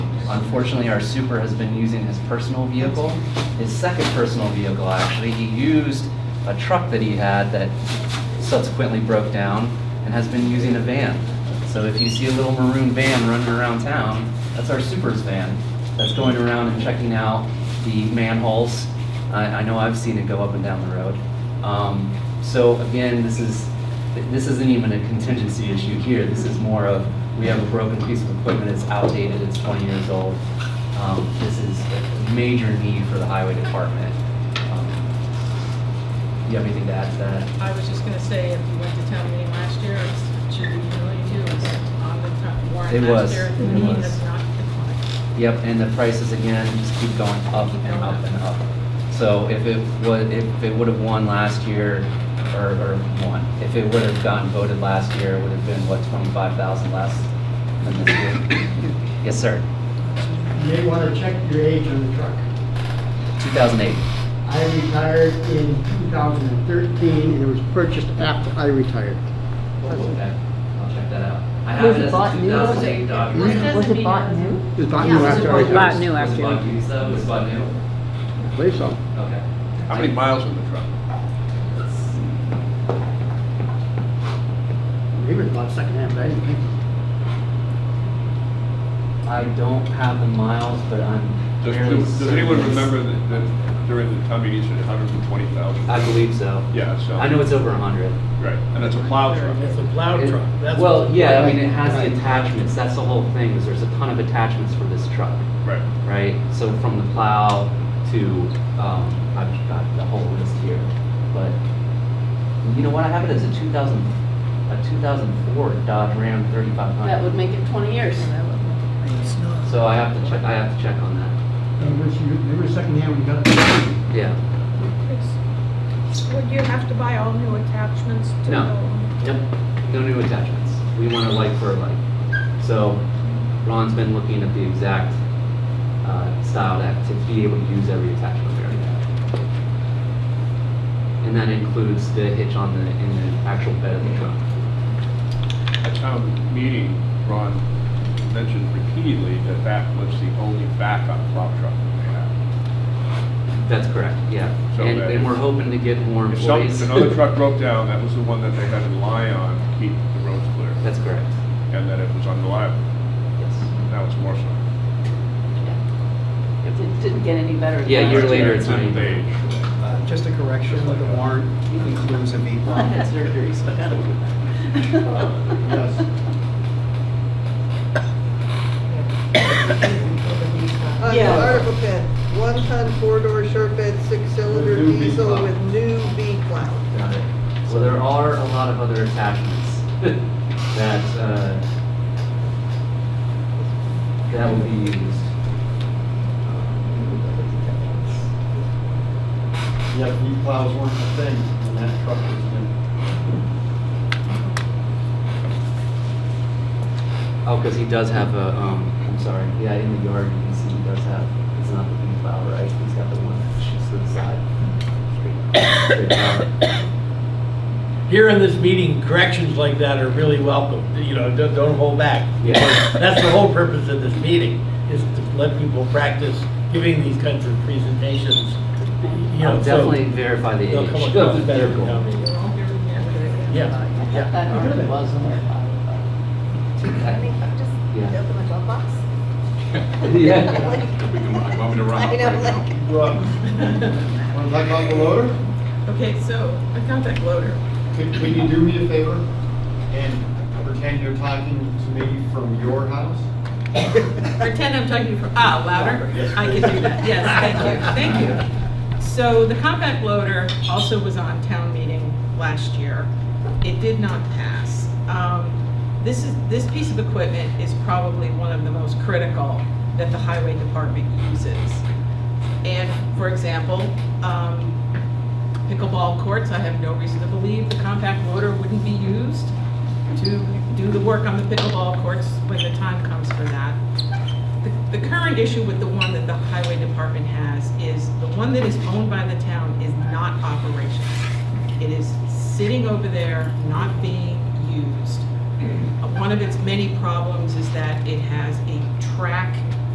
Unfortunately, our super has been using his personal vehicle, his second personal vehicle, actually. He used a truck that he had that subsequently broke down and has been using a van. So if you see a little maroon van running around town, that's our super's van. That's going around and checking out the manholes. I, I know I've seen it go up and down the road. Um, so again, this is, this isn't even a contingency issue here. This is more of, we have a broken piece of equipment, it's outdated, it's 20 years old. Um, This is a major need for the highway department. Um, You have anything to add to that? I was just gonna say, if you went to town meeting last year, it should be familiar to you, it's on the top warrant It was. last year. It mean, was. it's not declined. Yep, and the prices again just keep going up and up and up. So if it would, if it would have won last year, or, or won, if it would have gotten voted last year, it would have been, what, twenty-five thousand less than this year? Yes, sir, You may want to check your age on the truck. two thousand eight. I retired in 2013, and it was purchased after I retired. I'll check that out. I have it as a bought two new? thousand eight Dodge Was Ram. Was it bought new? It was bought Yeah, new it was after I bought- retired. bought new Was it after. bought used though, It was bought new? I believe so. Okay. How many miles on the truck? Let's see. Maybe it was bought secondhand, but I didn't think so. I don't have the miles, but I'm Does, fairly does- does anyone certain it's- remember that, that during the town meeting, you said hundred and twenty thousand? I believe so. Yeah, so. I know it's over a hundred. Right, and it's a plow truck. It's a plow It- truck. That's Well, what- yeah, I mean, it has the Right. attachments, that's the whole thing, is there's a ton of attachments for this truck, Right. right? So from the plow to, um, I've got the whole list here, but, you know what, I have it as a two thousand, a two thousand four Dodge Ram thirty-five That would hundred. make it 20 years. So I have to check, I have to check on that, It was- you- Maybe it was secondhand when you got it. yeah. It's- Would you have to buy all new attachments to No. the? Yep, no new attachments. We want a like for a like. So Ron's been looking at the exact uh, style to, to be able to use every attachment we already have. And that includes the hitch on the, in the actual bed of the truck. At town meeting, Ron mentioned repeatedly that that was the only backup plow truck they That's correct, yeah. So And, that- and we're hoping to get more had. If some, if employees. another truck broke down, that was the one that they had to rely on to keep the roads clear, That's correct, and that it was unreliable. yes. Now it's more so. It didn't- didn't get any better. than Yeah, that. you're later, it's Didn't not even- age. Uh, Just a correction, the warrant includes a I had meatball. surgery, so I gotta do Yes. On Yeah. Article 10, one-ton four-door short bed, six-cylinder With new V diesel plow. with new V-plow. Got it. Well, there are a lot of other attachments that, uh, that will be used. Um, Yep, meat plows weren't a thing when that truck was new. Oh, because he does have a, um, I'm sorry, yeah, in the yard, you can see he does have, it's not the bean plow, right? He's got the one that shoots to the side. Straight- straight out. Here in this meeting, corrections like that are really welcome, you know, don't, don't hold back. Yeah. That's the whole purpose of this meeting, is to let people practice giving these kinds of presentations. you know, I'll so definitely verify the age They'll of come across the better than how vehicle. they- All new attachments. Yeah, that. That hardly was in there, but- Yeah. open my box. Yeah. Want me to run up I right know, now? like, Want to talk about the loader? Okay, so a contact loader. Could, could you do me a favor and pretend you're talking to me from your house? Pretend I'm talking for, ah, louder? I can do that, yes, thank you, thank you. So the compact loader also was on town meeting last year. It did not pass. Um, This is, this piece of equipment is probably one of the most critical that the highway department uses. And, for example, um, pickleball courts, I have no reason to believe the compact loader wouldn't be used to do the work on the pickleball courts when the time comes for that. The- The current issue with the one that the highway department has is the one that is owned by the town is not operational. It is sitting over there, not being Uh, used. One of its many problems is that it has a track